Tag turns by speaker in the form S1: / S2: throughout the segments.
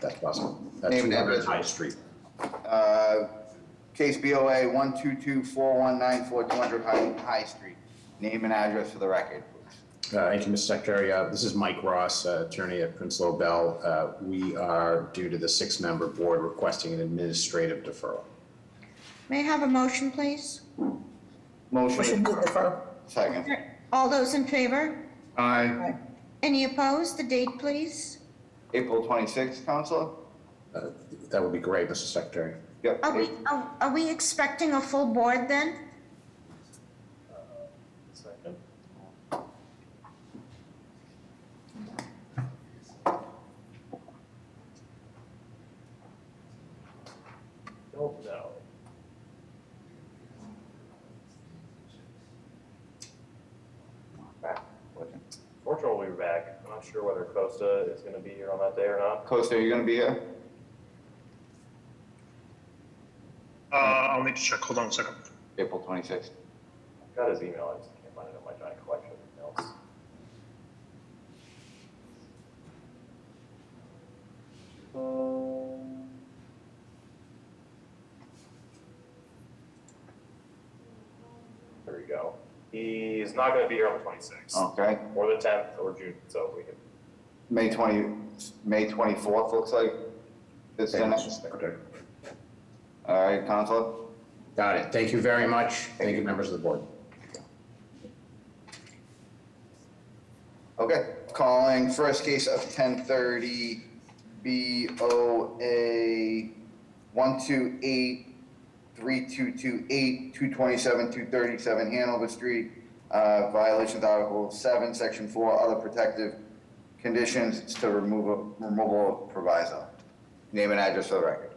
S1: That's possible. That's
S2: Name and
S1: Leonard
S2: address.
S1: High Street.
S2: Uh, Case BOA 1224194 High High Street. Name and address for the record, please.
S1: Uh, Thank you, Mr. Secretary. Uh, This is Mike Ross, uh, attorney at Prince Lo Bell. Uh, We are, due to the six-member board, requesting an administrative deferral.
S3: May I have a motion, please?
S2: Motion,
S4: to defer.
S2: second.
S3: All those in favor?
S2: Aye.
S4: Aye.
S3: Any opposed? The date, please.
S2: April 26th, Counselor?
S1: Uh, That would be great, Mr. Secretary.
S2: Yep.
S3: Are we, are are we expecting a full board then?
S5: Don't know. Fortunately, we'll be back. I'm not sure whether Costa is gonna be here on that day or not.
S2: Costa, are you going to be here?
S6: Uh, I'll need to check. Hold on a second.
S2: April 26th.
S5: Got his email, I just can't find it in my giant collection of emails. There we go. He's not gonna be here on the twenty-sixth,
S2: Okay.
S5: or the tenth, or June, so we can,
S2: May 20, May 24th, looks like. This
S1: Thank you, Mr.
S2: next.
S1: Secretary.
S2: All right, Counselor?
S1: Got it. Thank you very much. Thank you, members of the board.
S2: Okay, calling first case of ten thirty, BOA one two eight, three two two eight, two twenty-seven, two thirty-seven Hanover Street. Uh, violation of Article seven, Section four, other protective conditions, it's to remove, a- removal of proviso. Name and address for the record.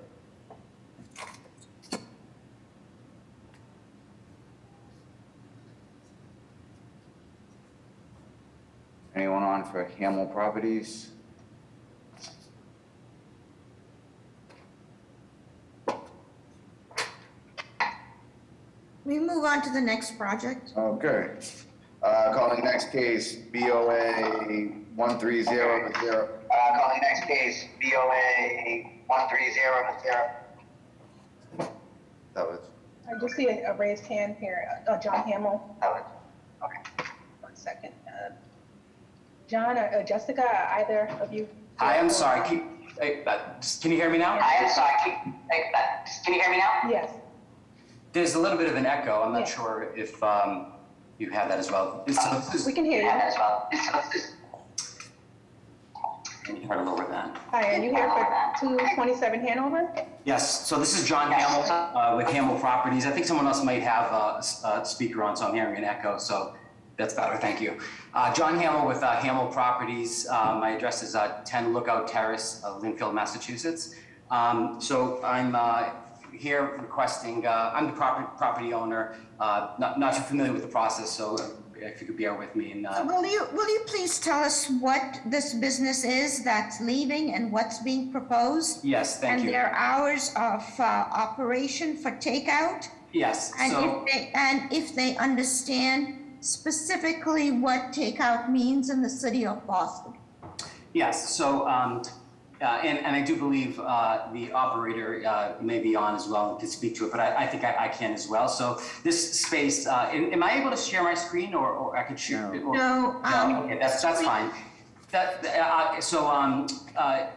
S2: Anyone on for Hamel Properties?
S3: We move on to the next project.
S2: Okay. Uh, calling next case, BOA one three zero zero,
S7: Uh, calling next case, BOA one three zero zero.
S2: that was
S4: I just see a a raised hand here, Uh, John Hamel,
S8: Oh,
S4: okay, one second. Uh, John or uh, Jessica, are either of you?
S8: Hi, I'm sorry. Can, hey, uh, just- can you hear me now?
S7: I am sorry, can, like, uh, can you hear me now?
S4: Yes,
S8: There's a little bit of an echo. I'm
S4: Yeah.
S8: not sure if um, you have that as well. It's- uh, this-
S4: we can hear
S7: Yeah,
S4: you.
S7: as well.
S8: Can you try to lower that?
S4: Hi, are you here for 227 Hanover?
S8: Yes, so this is John
S7: Yes.
S8: Hamill uh, with Hamill Properties. I think someone else might have uh, s- a speaker on, so I'm hearing an echo, so that's better, thank you. Uh, John Hamill with uh, Hamill Properties. Uh, My address is uh, 10 Lookout Terrace, uh, Lynnfield, Massachusetts. Um, So I'm uh, here requesting, uh, I'm the property property owner, uh, not not too familiar with the process, so if you could bear with me and. uh,
S3: Will you, will you please tell us what this business is that's leaving and what's being proposed?
S8: Yes, thank
S3: And
S8: you.
S3: their hours of uh, operation for takeout?
S8: Yes,
S3: And
S8: so,
S3: if they, and if they understand specifically what takeout means in the city of Boston?
S8: yes, so, um, uh, and, and I do believe, uh, the operator, uh, may be on as well and can speak to it, but I, I think I, I can as well. So this space, uh, am, am I able to share my screen or, or I could share? it or-
S3: No,
S8: No,
S3: um,
S8: okay, that's, that's fine. That, uh, so, um, uh,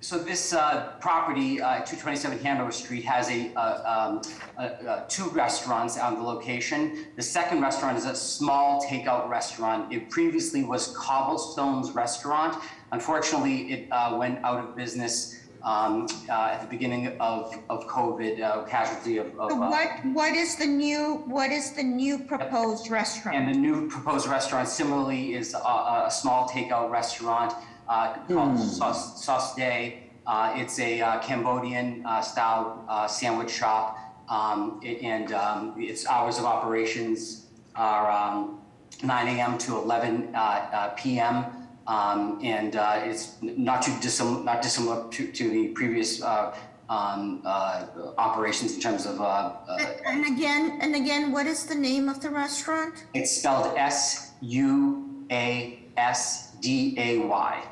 S8: so this, uh, property, uh, two twenty-seven Hanover Street has a, uh, um, uh, uh, two restaurants on the location. The second restaurant is a small takeout restaurant. It previously was Cobblestone's Restaurant. Unfortunately, it, uh, went out of business, um, uh, at the beginning of, of COVID, uh, casualty of, of.
S3: so
S8: uh,
S3: what, what is the new, what is the new proposed restaurant?
S8: And the new proposed restaurant similarly is a, a small takeout restaurant uh, called Sauce, Sauce Day. Uh, it's a uh, Cambodian uh, style uh, sandwich shop, um, a- and um, its hours of operations are um, 9 a.m. to 11 uh, uh, p.m. Um, and uh, it's n- not too dissim- not dissimilar to, to the previous uh, um, uh, operations in terms of uh, uh,
S3: And again, and again, what is the name of the restaurant?
S8: it's spelled S U A S D A Y.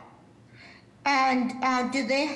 S3: And, uh, do they